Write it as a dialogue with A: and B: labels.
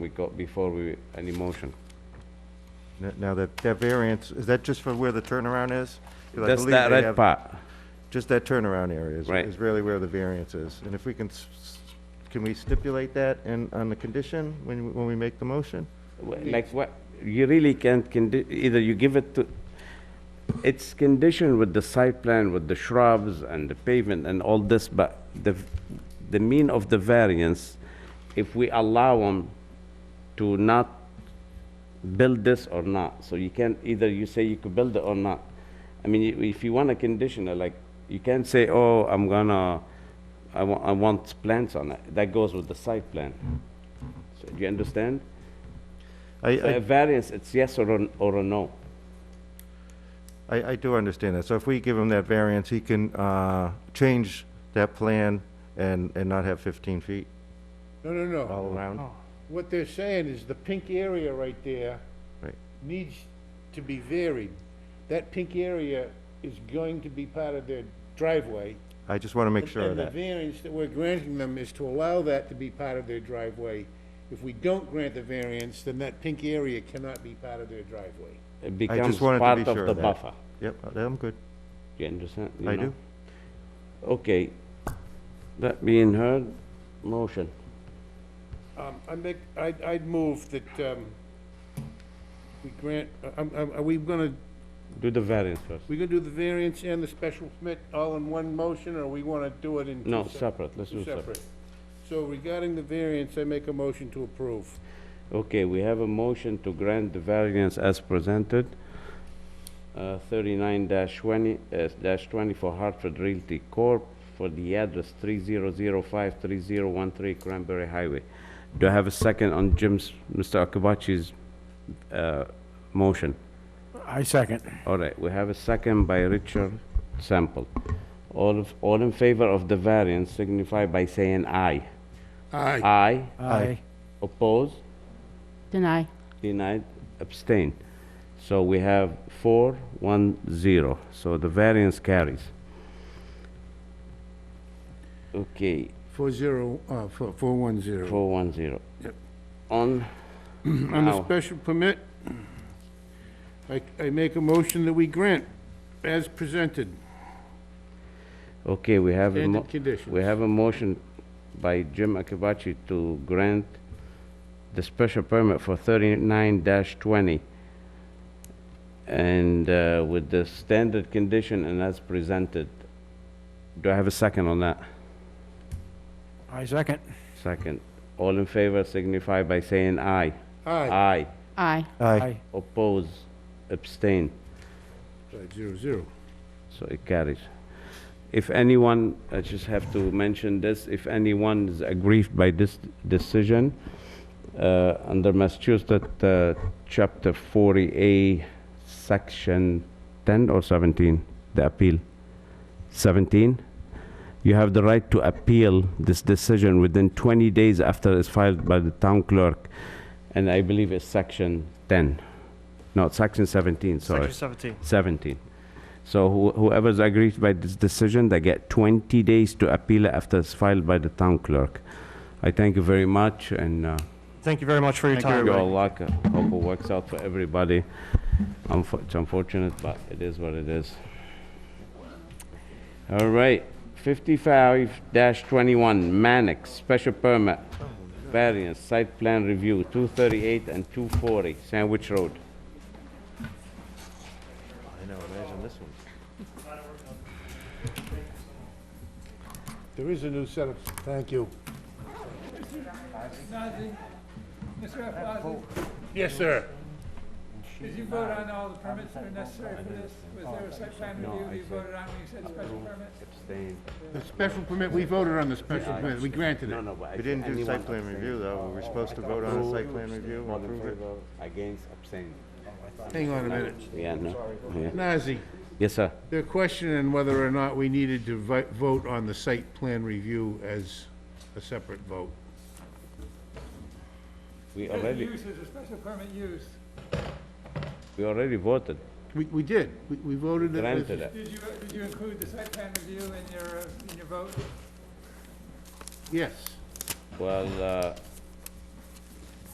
A: we got before we, any motion.
B: N- Now, that, that variance, is that just for where the turnaround is? 'Cause I
A: That's
B: believe
A: that
B: they
A: red
B: have-
A: part.
B: Just that turnaround area is,
A: Right.
B: is really where the variance is. And if we can, s- s- can we stipulate that in, on the condition when, we- when we make the motion?
A: Wh- Like what, you really can't, condi- either you give it to, it's conditioned with the site plan, with the shrubs and the pavement and all this, but the, v- the mean of the variance, if we allow them to not build this or not, so you can't, either you say you could build it or not. I mean, i- if you want a conditioner, like, you can't say, oh, I'm gonna, I want, I want plants on it, that goes with the site plan. So, Do you understand?
B: I,
A: A
B: I,
A: Uh, variance, it's yes or a, or a no.
B: I I do understand that. So if we give him that variance, he can, uh, change that plan and, and not have 15 feet
C: No, no,
B: all
C: no.
B: around?
C: What they're saying is the pink area right there
B: Right.
C: needs to be varied. That pink area is going to be part of their driveway.
B: I just want to make sure of
C: And the
B: that.
C: variance that we're granting them is to allow that to be part of their driveway. If we don't grant the variance, then that pink area cannot be part of their driveway.
A: It
B: I
A: becomes
B: just wanted to be
A: part
B: sure
A: of the
B: of that.
A: buffer.
B: Yep, uh, I'm good.
A: You understand? You
B: I
A: know?
B: do.
A: Okay. That being heard, motion.
C: Um, I make, I'd, I'd move that, um, we grant, um, um, are we gonna,
A: Do the variance first.
C: we gonna do the variance and the special permit all in one motion, or we wanna do it in two
A: No,
C: sep-
A: separate, let's
C: two
A: do separate.
C: So regarding the variance, I make a motion to approve.
A: Okay, we have a motion to grant the variance as presented. Uh, thirty-nine twenty, uh, dash twenty for Hartford Realty Corp. for the address three zero zero five three zero one three Cranberry Highway. Do I have a second on Jim's, Mr. Akabachi's, uh, motion?
D: I second.
A: All right, we have a second by Richard Sample. All, of- all in favor of the variance signify by saying aye.
C: Aye.
A: Aye,
D: Aye.
A: oppose,
E: Deny.
A: denied, abstain. So we have four, one, zero, so the variance carries. Okay,
C: Four zero, uh, four, four one zero.
A: four, one, zero.
C: Yep.
A: On,
C: On
A: Now-
C: the special permit, I, I make a motion that we grant as presented,
A: okay, we have, a mo-
C: standard conditions.
A: we have a motion by Jim Akabachi to grant the special permit for thirty-nine twenty. And uh, with the standard condition and as presented. Do I have a second on that?
D: I second.
A: Second. All in favor signify by saying aye.
C: Aye,
A: Aye.
E: Aye.
B: Aye.
A: Oppose, abstain.
C: Five zero zero.
A: So it carries. If anyone, I just have to mention this, if anyone is aggrieved by this decision, uh, under Massachusetts, uh, Chapter 40A, Section 10 or 17, the appeal, 17, you have the right to appeal this decision within 20 days after it's filed by the town clerk, and I believe it's Section 10, no, it's Section 17, sorry.
F: Section 17.
A: 17. So who- whoever's aggrieved by this decision, they get 20 days to appeal it after it's filed by the town clerk. I thank you very much, and uh,
F: Thank you very much for your time.
A: your luck, I hope it works out for everybody. Unfo- It's unfortunate, but it is what it is. All right, 55-21, Mannix, special permit, variance, site plan review, 238 and 240, Sandwich Road.
B: I know, imagine this one.
C: There is a new set of, thank you.
G: Mr. Alfasi,
C: Yes, sir.
G: did you vote on all the permits that are necessary for this? Was there a site plan review that you voted on when you said special permit?
C: The special permit, we voted on the special permit, we granted it.
B: We didn't do site plan review, though. Were we supposed to vote on a site plan review and approve it?
A: Against, abstain.
C: Hang on a minute.
A: Yeah, no. yeah.
C: Nazi,
A: Yes, sir.
C: they're questioning whether or not we needed to vi- vote on the site plan review as a separate vote.
A: We
G: Special
A: already,
G: use is a special permit use.
A: we already voted,
C: We, we did, we, we voted it. as-
A: granted it.
G: Did you, did you include the site plan review in your, uh, in your vote?
C: Yes.
A: Well, uh,